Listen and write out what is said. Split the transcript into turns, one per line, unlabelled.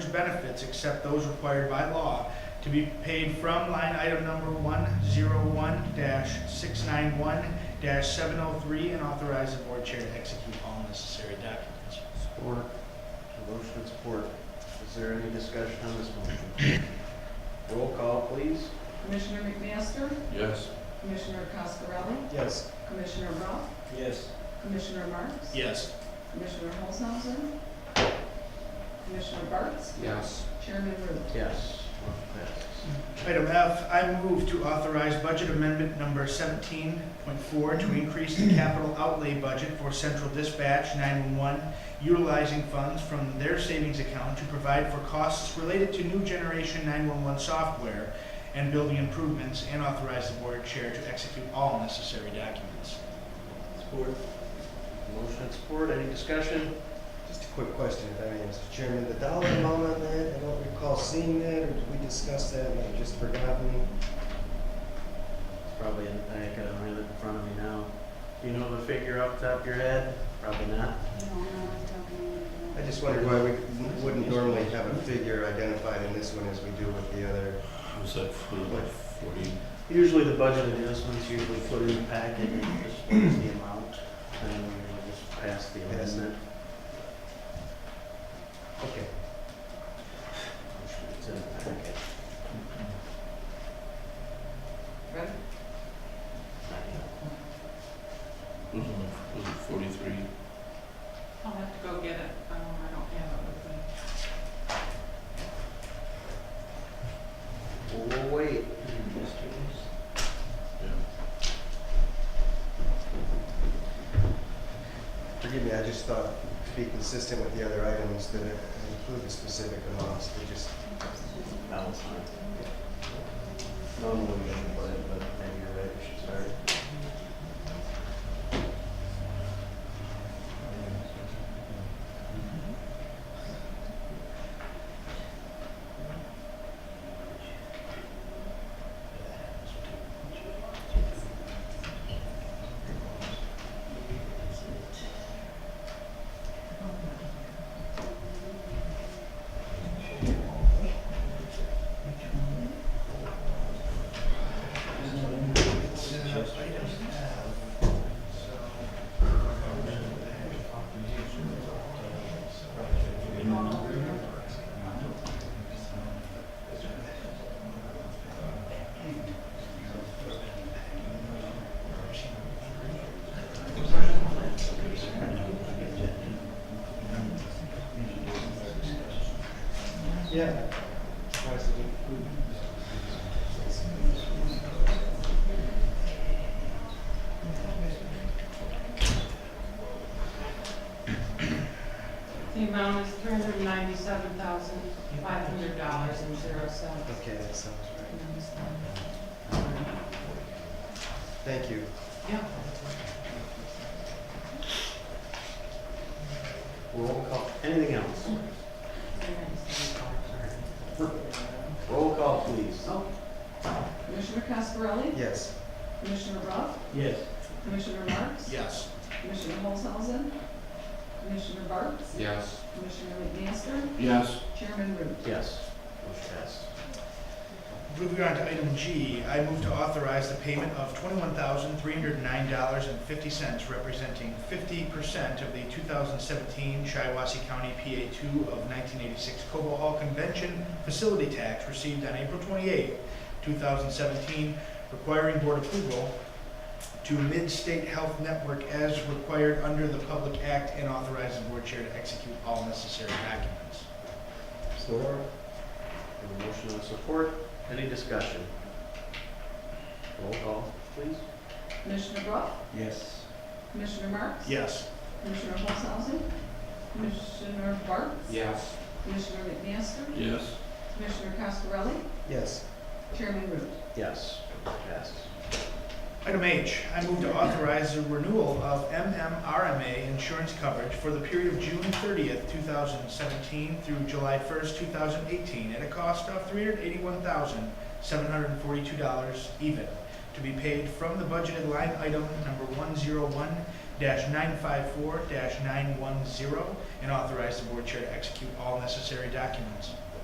and benefits except those required by law to be paid from line item number one zero one six nine one seven oh three and authorize the board chair to execute all necessary documents.
Support. A motion and support. Is there any discussion on this motion? Roll call, please.
Commissioner McMaster,
Yes.
Commissioner Cascarelli,
Yes.
Commissioner Roth,
Yes.
Commissioner Marks,
Yes.
Commissioner Holzhausen, Commissioner Bartz,
Yes.
Chairman Ruth.
Yes. Motion passes.
Item F, I move to authorize budget amendment number seventeen point four to increase the capital outlay budget for central dispatch nine-one-one, utilizing funds from their savings account to provide for costs related to new generation nine-one-one software and building improvements, and authorize the board chair to execute all necessary documents.
Support. Motion and support. Any discussion?
Just a quick question, if I may, Mr. Chairman, the dollar amount on that, I don't recall seeing that, or did we discuss that, and I've just forgotten?
It's probably in the packet. I don't have it in front of me now. Do you know the figure off the top of your head? Probably not.
I just wondered why we wouldn't normally have a figure identified in this one as we do with the other.
Was that for like forty?
Usually the budget adjustments usually put in the packet and just what is the amount, and then we usually just pass the
Pass.
amendment.
Okay.
It's in the packet.
Ready?
Was it, was it forty-three?
I'll have to go get it, um, I don't have it with me.
Well, we'll wait.
Yeah.
Forgive me, I just thought, to be consistent with the other items, that it include the specific amounts, we just,
That was fine. Normally we should put it, but maybe you're right, we should start.
Uh,
yeah.
The amount is three hundred ninety-seven thousand, five hundred dollars and zero cents.
Okay, that sounds right. Thank you.
Yeah.
Roll call. Anything else? Roll call, please.
Oh. Commissioner Cascarelli,
Yes.
Commissioner Roth,
Yes.
Commissioner Marks,
Yes.
Commissioner Holzhausen, Commissioner Bartz,
Yes.
Commissioner McMaster,
Yes.
Chairman Ruth.
Yes. Motion passed.
Moving on to item G, I move to authorize the payment of twenty-one thousand, three hundred and nine dollars and fifty cents, representing fifty percent of the two thousand seventeen Shiawassee County PA two of nineteen eighty-six Cobo Hall Convention Facility Tax received on April twenty-eighth, two thousand seventeen, requiring board approval to Mid-State Health Network as required under the Public Act and authorize the board chair to execute all necessary documents.
Support. Have a motion and support. Any discussion? Roll call, please.
Commissioner Roth,
Yes.
Commissioner Marks,
Yes.
Commissioner Holzhausen, Commissioner Bartz,
Yes.
Commissioner McMaster,
Yes.
Commissioner Cascarelli,
Yes.
Chairman Root.
Yes. Passed.
Item H, I move to authorize the renewal of MMRMA insurance coverage for the period of June thirtieth, two thousand seventeen through July first, two thousand eighteen, at a cost of three hundred eighty-one thousand, seven hundred and forty-two dollars even, to be paid from the budgeted line item number one zero one nine five four nine one zero and authorize the board chair to execute all necessary documents.